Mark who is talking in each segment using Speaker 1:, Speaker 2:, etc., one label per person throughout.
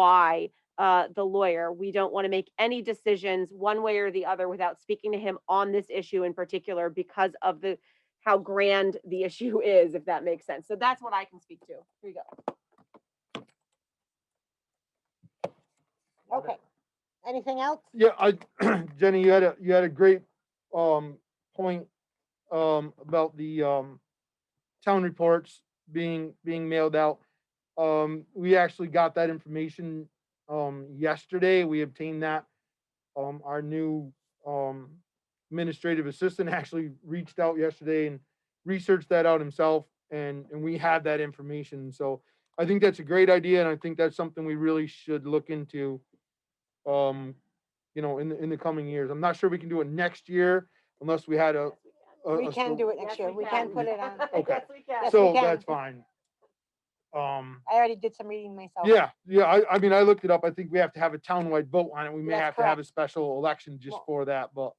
Speaker 1: why uh, the lawyer. We don't want to make any decisions one way or the other without speaking to him on this issue in particular because of the how grand the issue is, if that makes sense. So that's what I can speak to. Here you go.
Speaker 2: Okay. Anything else?
Speaker 3: Yeah, I, Jenny, you had a, you had a great, um, point, um, about the, um, town reports being, being mailed out. Um, we actually got that information, um, yesterday. We obtained that. Um, our new, um, administrative assistant actually reached out yesterday and researched that out himself and, and we have that information. So I think that's a great idea and I think that's something we really should look into. Um, you know, in the, in the coming years. I'm not sure we can do it next year unless we had a. a-
Speaker 2: We
Speaker 3: a stor-
Speaker 2: can do it
Speaker 1: Yes,
Speaker 2: next year. We can put it on.
Speaker 3: Okay.
Speaker 1: Yes, we can.
Speaker 2: Yes, we
Speaker 3: So
Speaker 2: can.
Speaker 3: that's fine. Um,
Speaker 2: I already did some reading myself.
Speaker 3: yeah, yeah, I, I mean, I looked it up. I think we have to have a townwide vote on it. We may
Speaker 2: That's
Speaker 3: have to have a special election just
Speaker 2: Well-
Speaker 3: for that, but.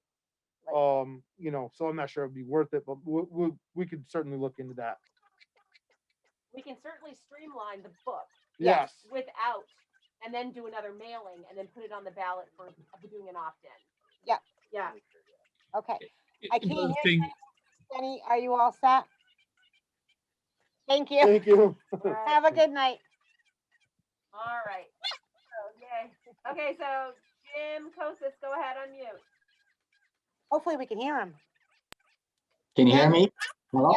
Speaker 2: Right.
Speaker 3: Um, you know, so I'm not sure it'd be worth it, but we, we, we could certainly look into that.
Speaker 1: We can certainly streamline the book
Speaker 3: Yes,
Speaker 2: Yes.
Speaker 1: without, and then do another mailing and then put it on the ballot for for doing an opt-in.
Speaker 2: Yeah.
Speaker 1: Yeah.
Speaker 2: Okay.
Speaker 4: it-
Speaker 2: I can't
Speaker 4: another
Speaker 2: hear
Speaker 4: thing-
Speaker 2: you. Jenny, are you all set? Thank you.
Speaker 3: thank you.
Speaker 1: All right.
Speaker 2: Have a good night.
Speaker 1: All right. So, yay. Okay, so Jim Kosis, go ahead, unmute.
Speaker 2: Hopefully we can hear him.
Speaker 5: Can you
Speaker 2: Yeah.
Speaker 5: hear me? Hello?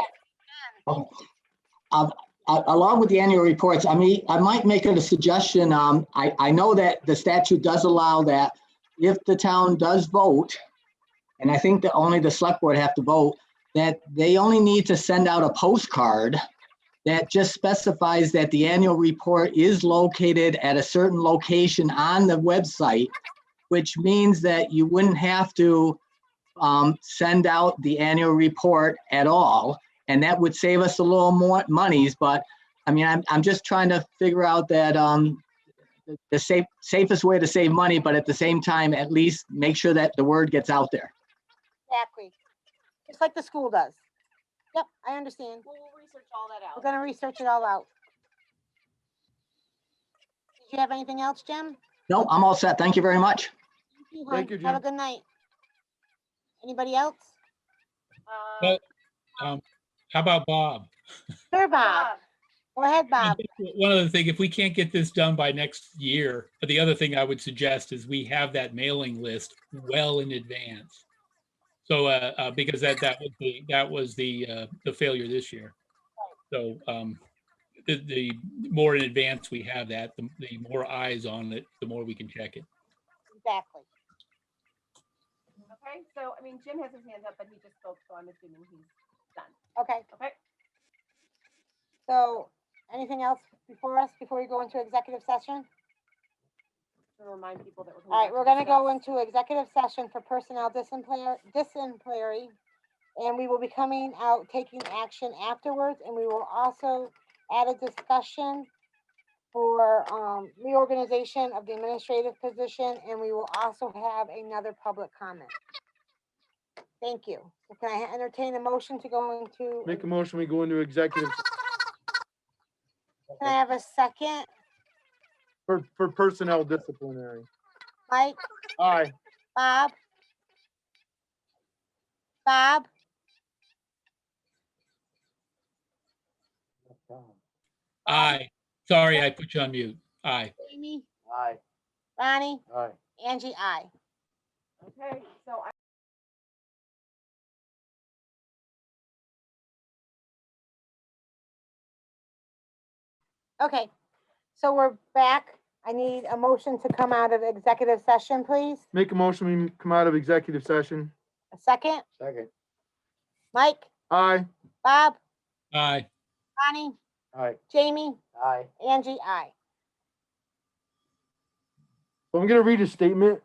Speaker 5: Oh.
Speaker 2: Thank
Speaker 5: Um, a- Along with the annual reports, I mean, I might make it a suggestion. Um, I, I know that the statute does allow that if the town does vote, and I think that only the select board have to vote, that they only need to send out a postcard that just specifies that the annual report is located at a certain location on the website, which means that you wouldn't have to um, send out the annual report at all. And that would save us a little more monies, but I mean, I'm, I'm just trying to figure out that, um, the- the safe, safest way to save money, but at the same time, at least make sure that the word gets out there.
Speaker 2: Exactly. Just like the school does. Yep, I understand.
Speaker 1: We'll we'll research all that
Speaker 2: We're
Speaker 1: out.
Speaker 2: gonna research it all out. Did you have anything else, Jim?
Speaker 5: No, I'm all set. Thank you very much.
Speaker 2: hon.
Speaker 3: Thank you,
Speaker 2: Have a good night. Anybody else?
Speaker 1: Um,
Speaker 4: Well, um, How about Bob?
Speaker 2: Sure, Bob.
Speaker 1: Bob,
Speaker 2: Go ahead, Bob.
Speaker 4: One other thing, if we can't get this done by next year, but the other thing I would suggest is we have that mailing list well in advance. So, uh, uh, because that, that would be, that was the, uh, the failure this year. So, um, the, the more in advance we have that, the, the more eyes on it, the more we can check it.
Speaker 2: Exactly.
Speaker 1: Okay, so, I mean, Jim has his hands up, but he just spoke, so I'm assuming he's done.
Speaker 2: Okay.
Speaker 1: Okay,
Speaker 2: So, anything else before us, before we go into executive session?
Speaker 1: to remind people that we're.
Speaker 2: All right,
Speaker 1: back
Speaker 2: we're gonna go
Speaker 1: discuss.
Speaker 2: into executive session for personnel disciplinary, disciplinary. And we will be coming out, taking action afterwards, and we will also add a discussion for, um, reorganization of the administrative position, and we will also have another public comment. Thank you. So Can I entertain a motion to go into,
Speaker 3: Make a
Speaker 2: can
Speaker 3: motion, we go into executive
Speaker 2: I have a second?
Speaker 3: for, for personnel disciplinary.
Speaker 2: Mike,
Speaker 3: Aye,
Speaker 2: Bob? Bob?
Speaker 4: Aye. Sorry, I put you on mute. Aye.
Speaker 2: Amy? Aye. Ronnie?
Speaker 3: aye.
Speaker 2: Angie, I.
Speaker 1: Okay, so I.
Speaker 2: Okay, so we're back. I need a motion to come out of executive session, please.
Speaker 3: Make a motion, we come out of executive session.
Speaker 2: A second.
Speaker 3: Second.
Speaker 2: Mike,
Speaker 3: Aye.
Speaker 2: Bob,
Speaker 4: Aye.
Speaker 2: Bonnie,
Speaker 3: Aye.
Speaker 2: Jamie,
Speaker 3: Aye.
Speaker 2: Angie, I.
Speaker 3: So I'm gonna read a statement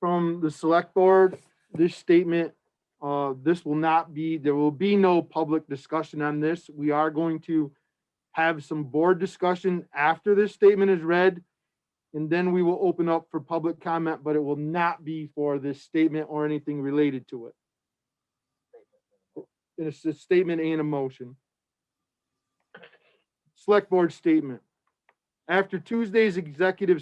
Speaker 3: from the select board. This statement, uh, this will not be, there will be no public discussion on this. We are going to have some board discussion after this statement is read. And then we will open up for public comment, but it will not be for this statement or anything related to it. It's a statement and a motion. Select board statement. After Tuesday's executive